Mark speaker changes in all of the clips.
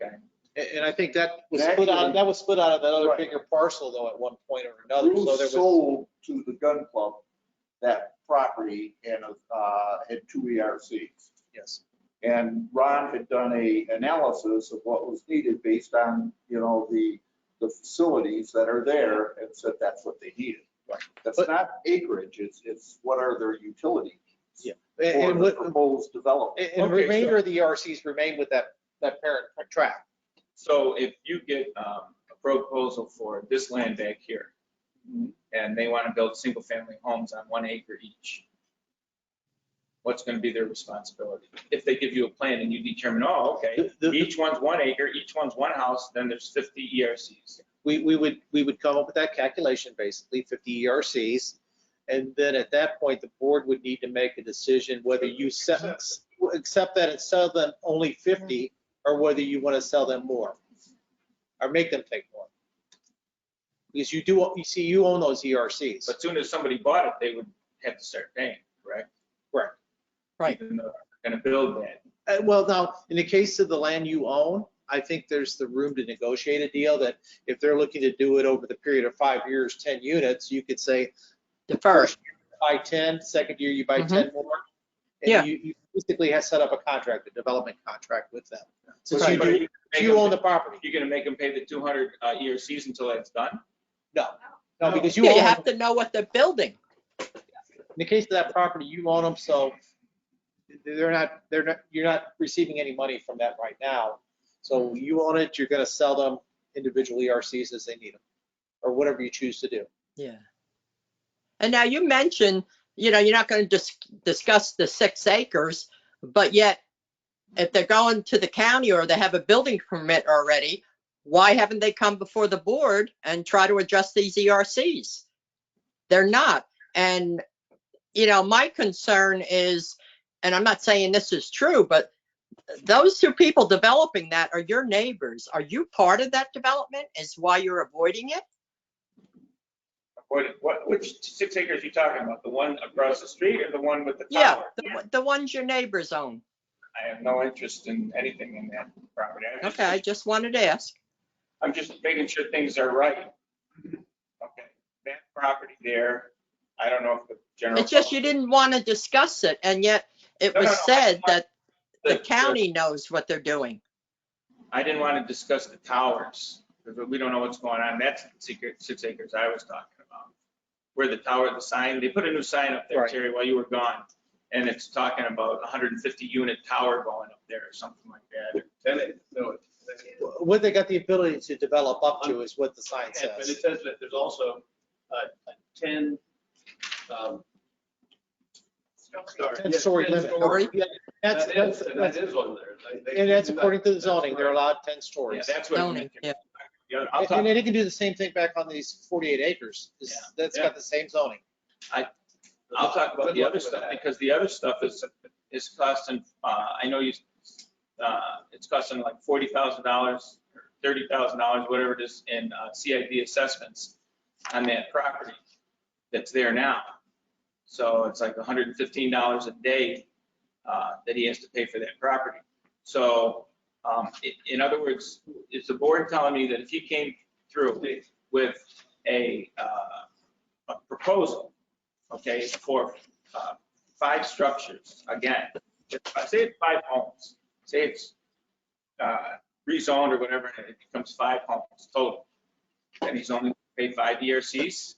Speaker 1: And, and I think that was
Speaker 2: And
Speaker 1: split out,
Speaker 2: actually-
Speaker 1: that was split out of that other
Speaker 2: Right.
Speaker 1: bigger parcel though at one point or another. So there
Speaker 2: Bruce
Speaker 1: was,
Speaker 2: sold to the gun club that property and, uh, had two ERCs.
Speaker 1: yes,
Speaker 2: And Ron had done a analysis of what was needed based on, you know, the, the facilities that are there and said that's what they needed. That's
Speaker 1: But-
Speaker 2: not acreage, it's, it's what are their utilities
Speaker 1: And-
Speaker 2: for
Speaker 1: and
Speaker 2: the
Speaker 1: what-
Speaker 2: proposed development.
Speaker 1: and and
Speaker 3: Okay,
Speaker 1: remainder
Speaker 3: so-
Speaker 1: of the E ERCs remain with that, that parent tract.
Speaker 3: So if you get um, a proposal for this land back here, and they want to build single-family homes on one acre each, what's going to be their responsibility? If they give you a plan and you determine, oh, okay,
Speaker 1: The- the-
Speaker 3: each one's one acre, each one's one house, then there's E 50 ERCs.
Speaker 1: We, we would, we would come up with that calculation, basically 50 ERCs. And then at that point, the board would need to make a decision whether you se- accept that and sell them only 50 or whether you want to sell them more or make them take more. Because you do, you see, you own those E ERCs.
Speaker 3: But soon as somebody bought it, they would have to start paying, correct?
Speaker 1: Correct. Right.
Speaker 3: Even though they're Going to build that.
Speaker 1: Uh, Well, now, in the case of the land you own, I think there's the room to negotiate a deal that if they're looking to do it over the period of five years, 10 units, you could say,
Speaker 4: The first,
Speaker 1: buy 10, second year you buy
Speaker 4: Mhm.
Speaker 1: 10 more.
Speaker 4: Yeah.
Speaker 1: And you you basically have set up a contract, a development contract with them. Since
Speaker 3: But
Speaker 1: you,
Speaker 3: you
Speaker 1: do-
Speaker 3: make them-
Speaker 1: you own the property.
Speaker 3: You're going to make them pay the 200 uh, ERCs until that's done?
Speaker 1: No, because you
Speaker 4: yeah,
Speaker 1: own,
Speaker 4: you
Speaker 1: them.
Speaker 4: have to know what they're building.
Speaker 1: in the case of that property, you own them, so they're not, they're not, you're not receiving any money from that right now. So you own it, you're going to sell them individual ERCs as they need them, or whatever you choose to do.
Speaker 4: Yeah. And now you mentioned, you know, you're not going to dis- discuss the six acres, but yet if they're going to the county or they have a building permit already, why haven't they come before the board and try to adjust these ERCs? They're not. And, you know, my concern is, and I'm not saying this is true, but those two people developing that are your neighbors. Are you part of that development is why you're avoiding it?
Speaker 3: What, what, which six acres you talking about? The one across the street or the one with the
Speaker 4: Yeah,
Speaker 3: tower?
Speaker 4: the, one- the ones your neighbors own.
Speaker 3: I have no interest in anything in that property. I'm just-
Speaker 4: Okay, I just wanted to ask.
Speaker 3: I'm just making sure things are right. Okay, that property there, I don't know if the general.
Speaker 4: It's just you didn't want to discuss it and yet it
Speaker 3: No, no,
Speaker 4: was
Speaker 3: no, I
Speaker 4: said
Speaker 3: want
Speaker 4: that
Speaker 3: the-
Speaker 4: the county knows what they're doing.
Speaker 3: I didn't want to discuss the towers, because we don't know what's going on. That's the secret, six acres I was talking about. Where the tower, the sign, they put a new sign up there,
Speaker 1: Right.
Speaker 3: Terry, while you were gone. And it's talking about 150 unit tower going up there or something like that.
Speaker 5: Then it, no, it-
Speaker 1: What they got the ability to develop up to is what the sign
Speaker 5: and- but it
Speaker 1: says.
Speaker 5: says that there's also a a ten, um. sorry, yeah,
Speaker 1: Ten-story
Speaker 5: 10
Speaker 1: limit.
Speaker 5: story.
Speaker 1: Yeah, That's,
Speaker 5: That is,
Speaker 1: that's,
Speaker 5: and that is on there. They- they
Speaker 1: and that's
Speaker 5: can do that.
Speaker 1: according to the zoning, they're
Speaker 5: That's right.
Speaker 1: allowed ten
Speaker 3: Yeah,
Speaker 1: stories.
Speaker 3: that's what. I'm
Speaker 4: Zoning,
Speaker 3: thinking.
Speaker 4: yeah.
Speaker 3: The other- I'll
Speaker 1: And
Speaker 3: talk-
Speaker 1: and then they can do the same thing back on these forty-eight acres. It's-
Speaker 3: Yeah.
Speaker 1: That's got the same zoning.
Speaker 3: I'll talk about
Speaker 5: Good
Speaker 3: the
Speaker 5: luck
Speaker 3: other
Speaker 5: with
Speaker 3: stuff,
Speaker 5: that.
Speaker 3: because the other stuff is, is costing, uh, I know you, uh, it's costing like forty thousand dollars, thirty thousand dollars, whatever it is, in uh, CID assessments on that property that's there now. So it's like hundred and fifteen dollars a day, uh, that he has to pay for that property. So, um, i- in other words, is the board telling me that if he came through with a, uh, a proposal, okay, for uh, five structures, again, if I say it's five homes, say it's uh, rezoned or whatever, and it becomes five homes total, and he's only paid five ERCs,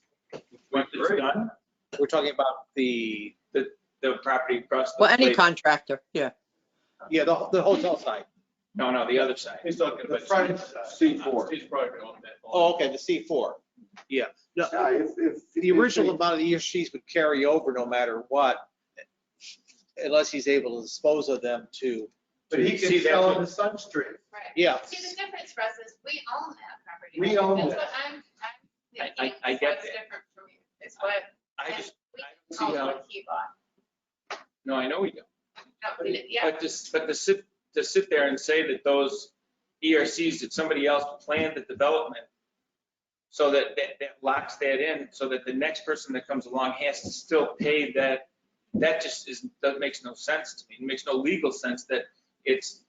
Speaker 3: once it's done,
Speaker 1: We're talking about the,
Speaker 3: the property across the.
Speaker 4: Well, any
Speaker 3: place-
Speaker 4: contractor, yeah.
Speaker 1: yeah, the, the hotel side.
Speaker 3: No, no, the other side.
Speaker 5: He's talking
Speaker 2: The
Speaker 5: about.
Speaker 2: front, C4.
Speaker 5: He's probably on that.
Speaker 1: Oh, okay, the C four. Yeah. No,
Speaker 2: Yeah, if- if-
Speaker 1: The original amount of the ERCs would carry over no matter what, unless he's able to dispose of them to,
Speaker 2: But he
Speaker 3: See,
Speaker 2: can
Speaker 3: that's
Speaker 2: sell
Speaker 3: what-
Speaker 2: them to Sunstream.
Speaker 6: Right.
Speaker 1: yeah.
Speaker 6: See, the difference for us is we own that property.
Speaker 2: We own
Speaker 6: That's
Speaker 2: that.
Speaker 6: what I'm, I'm
Speaker 3: I-
Speaker 6: thinking.
Speaker 3: I- I get
Speaker 6: What's
Speaker 3: that.
Speaker 6: different from you is what,
Speaker 3: I just,
Speaker 6: we
Speaker 3: I don't see how-
Speaker 6: own what he bought.
Speaker 3: no, I know we don't.
Speaker 6: No, we didn't- Yeah,
Speaker 3: But just, but to sit, to sit there and say that those ERCs, that somebody else planned the development, so that, that, that locks that in, so that the next person that comes along has to still pay that, that just is, that makes no sense to me. It makes no legal sense that it's